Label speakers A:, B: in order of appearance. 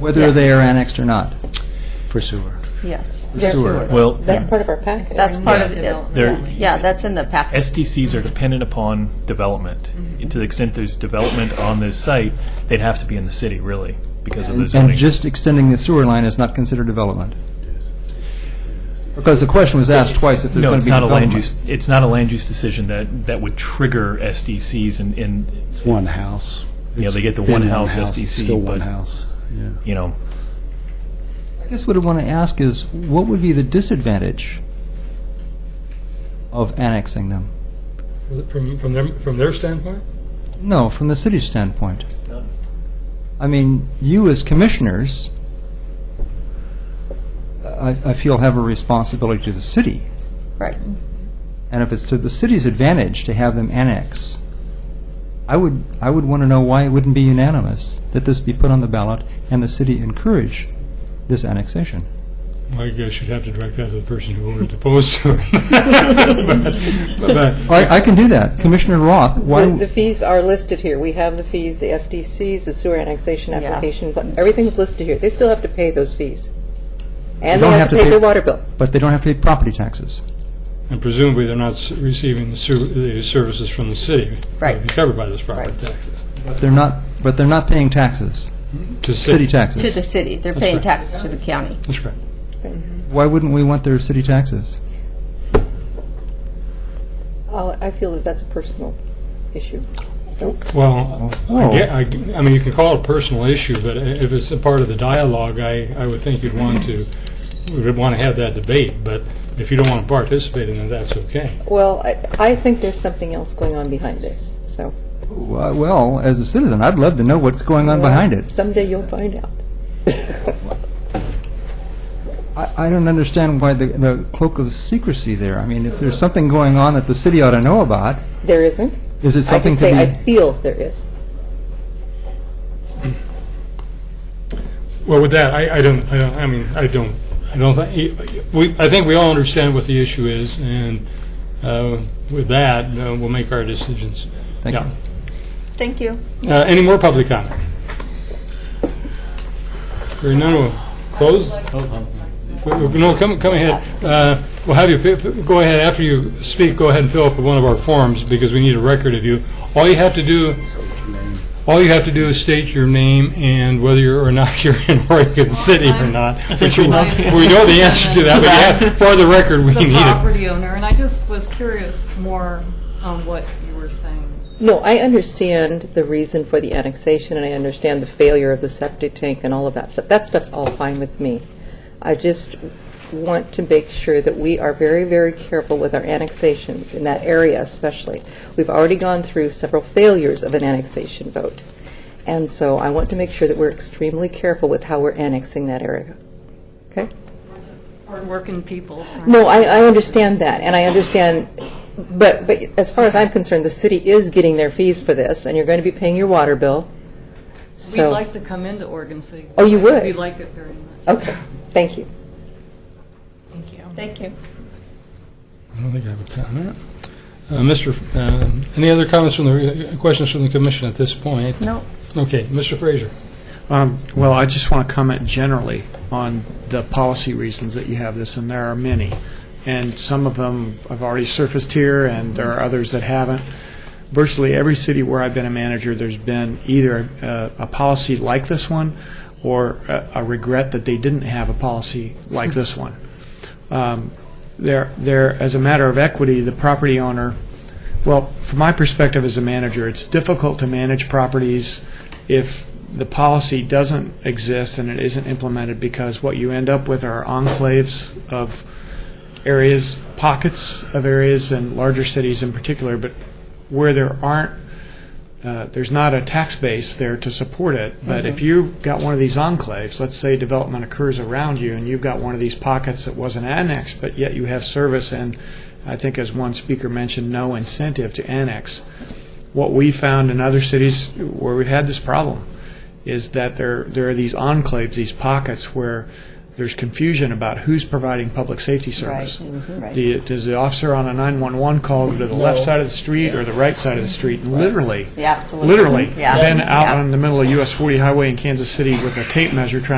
A: whether they are annexed or not.
B: for sewer.
C: Yes,
A: The sewer.
D: Well,
E: That's part of our package.
C: that's part of it.
D: there,
C: Yeah, that's in the package.
D: SDCs are dependent upon development. And To the extent there's development on this site, they'd have to be in the city, really, because of the
A: And
D: zoning.
A: just extending the sewer line is not considered development. Because the question was asked twice if there's
D: No,
A: going to
D: it's
A: be
D: not a land
A: development.
D: use, it's not a land use decision that, that would trigger SDCs and, and,
B: It's one house.
D: Yeah, they get the
B: It's
D: one
B: been
D: house
B: It's
D: SDC,
B: Still one
D: but-
B: house, yeah.
D: you know,
A: I guess what I want to ask is, what would be the disadvantage of annexing them?
F: From, from their, from their standpoint?
A: No, from the city's standpoint. I mean, you as commissioners, I, I feel have a responsibility to the city.
C: Right.
A: And if it's to the city's advantage to have them annex, I would, I would want to know why it wouldn't be unanimous that this be put on the ballot and the city encourage this annexation.
F: I guess you'd have to direct that to the person who voted opposed to it. But- but-
A: I, I can do that. Commissioner Roth, why?
E: The the fees are listed here. We have the fees, the SDCs, the sewer annexation
C: Yeah.
E: application, but everything's listed here. They still have to pay those fees.
A: They
E: And they
A: don't
E: have to pay their water bill.
A: But they don't have to pay property taxes.
F: And presumably, they're not s- receiving the su- the services from the city.
C: Right.
F: They'd be Covered by those property
C: Right.
F: taxes.
A: But they're not, but they're not paying taxes,
F: To
A: city
C: To
A: taxes.
C: the city. They're paying
F: right.
C: taxes to the county.
F: That's correct.
A: Why wouldn't we want their city taxes?
E: Oh, I feel that that's a personal issue. So,
F: Well, I
A: Oh.
F: ge- I ge- I mean, you can call it a personal issue, but i- if it's a part of the dialogue, I, I would think you'd want to, would want to have that debate, but if you don't want to participate in it, that's okay.
E: well, I, I think there's something else going on behind this, so.
A: Well, well, as a citizen, I'd love to know what's going on behind it.
E: Someday you'll find out.
A: I, I don't understand why the, the cloak of secrecy there. I mean, if there's something going on that the city ought to know about,
E: There isn't.
A: is it
E: I
A: something
E: can
A: to be?
E: say I feel there is.
F: Well, with that, I, I don't, I don't, I mean, I don't, I don't think, we, I think we all understand what the issue is, and uh, with that, uh, we'll make our decisions.
A: Thank you.
C: Thank you.
F: you. Uh, any more public comment? Hearing none, we'll close. Wait, wait, No, come, come ahead. Uh, we'll have you, pi- go ahead, after you speak, go ahead and fill up one of our forms, because we need a record of you. All you have to do, all you have to do is state your name and whether you're or not you're in Oregon City or not. Which we we know the answer to that, but yeah, for the record, we
G: the
F: need it.
G: property owner, and I just was curious more on what you were saying.
E: No, I understand the reason for the annexation, and I understand the failure of the septic tank and all of that stuff. That stuff's all fine with me. I just want to make sure that we are very, very careful with our annexations, in that area especially. We've already gone through several failures of an annexation vote, and so I want to make sure that we're extremely careful with how we're annexing that area. Okay?
G: Hardworking people. aren't
E: No, I, I understand that, and I understand, but, but as far as I'm concerned, the city is getting their fees for this, and you're going to be paying your water bill,
G: We'd
E: so.
G: like to come into Oregon City.
E: Oh, you would?
G: We like it very much.
E: Okay, thank you.
G: Thank you.
C: Thank you.
F: I don't think I have a comment. Uh, Mr., F- uh, any other comments from the, uh, questions from the commission at this point?
C: No.
F: Okay, Mr. Fraser.
H: Um, Well, I just want to comment generally on the policy reasons that you have this, and there are many. And some of them have already surfaced here, and there are others that haven't. Virtually every city where I've been a manager, there's been either a, a policy like this one or a, a regret that they didn't have a policy like this one. Um, there, there, as a matter of equity, the property owner, well, from my perspective as a manager, it's difficult to manage properties if the policy doesn't exist and it isn't implemented because what you end up with are enclaves of areas, pockets of areas, and larger cities in particular, but where there aren't, uh, there's not a tax base there to support it. But if
C: Mm-hmm.
H: you've got one of these enclaves, let's say development occurs around you, and you've got one of these pockets that wasn't annexed, but yet you have service, and I think as one speaker mentioned, no incentive to annex what we found in other cities where we've had this problem is that there there are these enclaves, these pockets where there's confusion about who's providing public safety service.
C: Right, mhm, right.
H: The- Does the officer on a 911 call go to the left side of the street or the right side of the street? And Literally.
C: Yeah, absolutely.
H: Literally.
C: Yeah.
H: Been out
C: Yeah.
H: on the middle of US 40 highway in Kansas City with a tape measure trying